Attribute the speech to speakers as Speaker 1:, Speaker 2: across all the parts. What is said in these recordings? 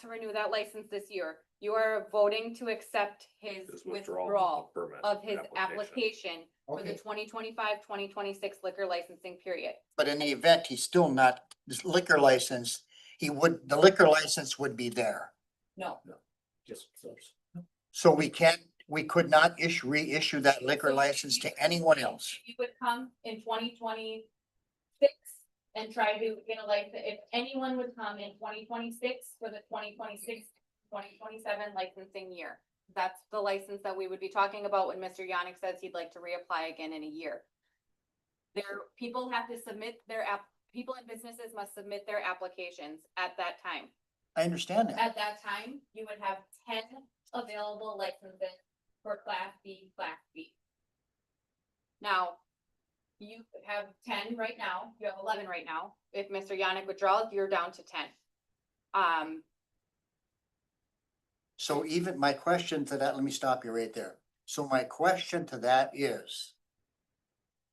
Speaker 1: to renew that license this year, you are voting to accept his
Speaker 2: His
Speaker 1: withdrawal
Speaker 2: of permit
Speaker 1: of his application for the
Speaker 3: Okay,
Speaker 1: 2025-2026 liquor licensing period.
Speaker 3: but in the event, he's still not, this liquor license, he would, the liquor license would be there.
Speaker 1: No.
Speaker 2: Just- just-
Speaker 3: So we can't, we could not issue, reissue that liquor
Speaker 1: So
Speaker 3: license
Speaker 1: you-
Speaker 3: to anyone else.
Speaker 1: You would come in twenty twenty-six and try to get a license, if anyone would come in twenty twenty-six for the 2026-2027 licensing year. That's the license that we would be talking about when Mr. Yannick says he'd like to reapply again in a year. There, people have to submit their app, people and businesses must submit their applications at that time.
Speaker 3: I understand that.
Speaker 1: At that time, you would have ten available licenses for class B, class B. Now, you have ten right now, you have eleven right now. If Mr. Yannick withdraws, you're down to ten. Um,
Speaker 3: So even my question to that, let me stop you right there. So my question to that is.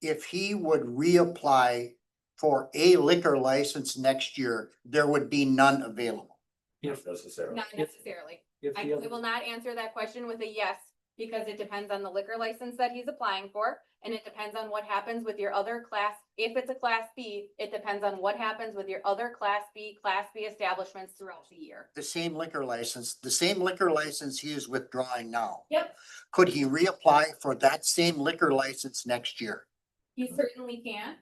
Speaker 3: If he would reapply for a liquor license next year, there would be none available.
Speaker 2: If necessary.
Speaker 1: not necessarily.
Speaker 4: If
Speaker 1: I
Speaker 4: the
Speaker 1: I
Speaker 4: other,
Speaker 1: will not answer that question with a yes, because it depends on the liquor license that he's applying for. And it depends on what happens with your other class, if it's a class B, it depends on what happens with your other class B, class B establishments throughout the year.
Speaker 3: The same liquor license, the same liquor license he is withdrawing now.
Speaker 1: Yep.
Speaker 3: Could he reapply for that same liquor license next year?
Speaker 1: He certainly can,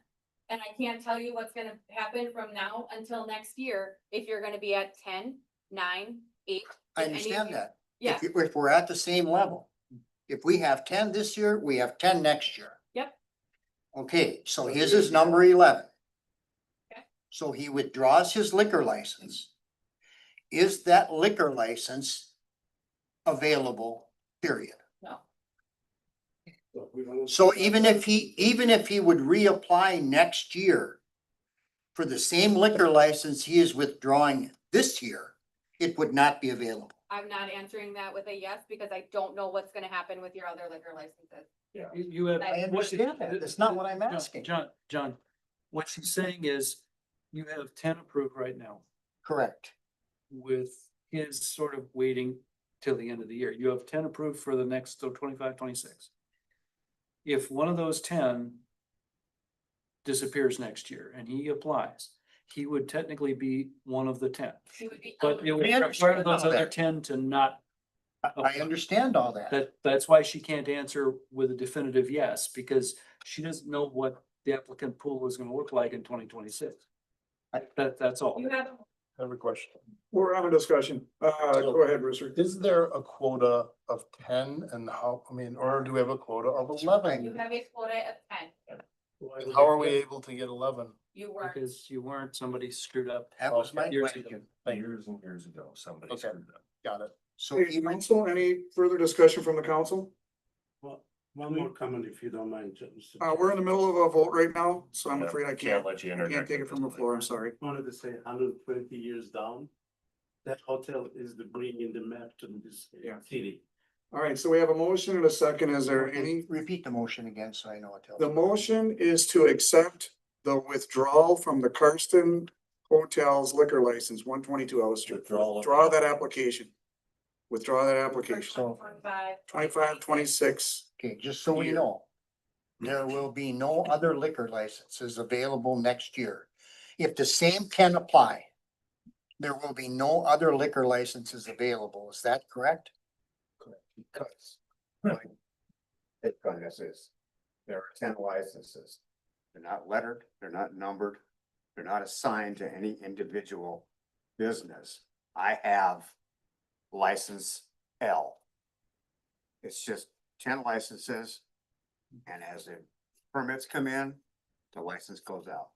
Speaker 1: and I can't tell you what's gonna happen from now until next year, if you're gonna be at ten, nine, eight.
Speaker 3: I
Speaker 1: if any of
Speaker 3: understand
Speaker 1: you-
Speaker 3: that.
Speaker 1: Yeah,
Speaker 3: If, you- if we're at the same level, if we have ten this year, we have ten next year.
Speaker 1: Yep.
Speaker 3: Okay, so his is number eleven.
Speaker 1: Okay.
Speaker 3: So he withdraws his liquor license. Is that liquor license available, period?
Speaker 1: no,
Speaker 2: Look, we don't-
Speaker 3: So even if he, even if he would reapply next year for the same liquor license he is withdrawing this year, it would not be available.
Speaker 1: I'm not answering that with a yes, because I don't know what's gonna happen with your other liquor licenses.
Speaker 2: Yeah.
Speaker 4: you- you have.
Speaker 1: I
Speaker 4: what-
Speaker 3: understand that. That's not what I'm
Speaker 4: John-
Speaker 3: asking.
Speaker 4: John, John, what she's saying is you have ten approved right now
Speaker 3: Correct.
Speaker 4: with his sort of waiting till the end of the year. You have ten approved for the next, so 25, 26. If one of those ten disappears next year and he applies, he would technically be one of the ten.
Speaker 1: She would be
Speaker 4: But it would
Speaker 3: I understand
Speaker 4: require those
Speaker 3: all
Speaker 4: other
Speaker 3: that.
Speaker 4: ten to not
Speaker 3: I- I understand all that.
Speaker 4: That, that's why she can't answer with a definitive yes, because she doesn't know what the applicant pool is gonna look like in twenty twenty-six. That, that's all.
Speaker 1: You have,
Speaker 5: I have a question.
Speaker 6: We're having a discussion. Uh,
Speaker 5: So-
Speaker 6: go ahead, Richard.
Speaker 5: Is there a quota of ten and how, I mean, or do we have a quota of
Speaker 1: you
Speaker 5: eleven?
Speaker 1: have a quota of ten,
Speaker 5: And How are we able to get eleven?
Speaker 1: you weren't,
Speaker 4: Because you weren't, somebody scewed up.
Speaker 3: That was my
Speaker 4: Years
Speaker 3: question.
Speaker 5: Thank you.
Speaker 2: Years and years ago, somebody
Speaker 5: Okay.
Speaker 2: screwed up.
Speaker 5: Got it.
Speaker 3: So
Speaker 6: Hey,
Speaker 3: even,
Speaker 6: council, any further discussion from the council?
Speaker 7: Well, one more comment if you don't mind. Mr.
Speaker 6: Uh, we're in the middle of a vote right now, so I'm
Speaker 2: Yeah,
Speaker 6: afraid I can't,
Speaker 2: let you
Speaker 6: I can't
Speaker 2: interject
Speaker 6: take
Speaker 2: at
Speaker 6: it from
Speaker 2: this point.
Speaker 6: the floor. I'm sorry.
Speaker 7: Chair. Wanted to say hundred and twenty years down, that hotel is the bringing the map to this
Speaker 6: Yeah.
Speaker 7: city.
Speaker 6: All right, so we have a motion and a second. Is there any?
Speaker 3: repeat the motion again, so I know what to.
Speaker 6: The motion is to accept the withdrawal from the Karsten Hotels liquor license, one twenty-two Ellis Street.
Speaker 2: Withdrawal of-
Speaker 6: Draw that application. Withdraw that application.
Speaker 3: So,
Speaker 1: five,
Speaker 6: Twenty-five, twenty-six.
Speaker 3: okay, just so we
Speaker 6: Year.
Speaker 3: know. There will be no other liquor licenses available next year. If the same can apply. There will be no other liquor licenses available. Is that correct?
Speaker 8: because. It is, there are ten licenses. They're not lettered, they're not numbered, they're not assigned to any individual business. I have license L. It's just ten licenses. And as the permits come in, the license goes out.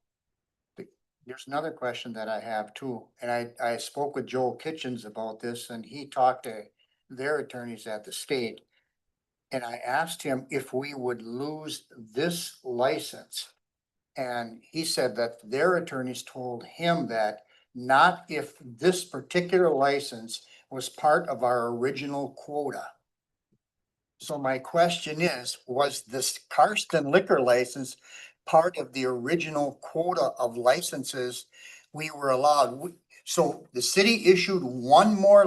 Speaker 3: There's another question that I have too, and I, I spoke with Joel Kitchens about this and he talked to their attorneys at the state. And I asked him if we would lose this license. And he said that their attorneys told him that not if this particular license was part of our original quota. So my question is, was this Karsten liquor license part of the original quota of licenses we were allowed. We- So the city issued one more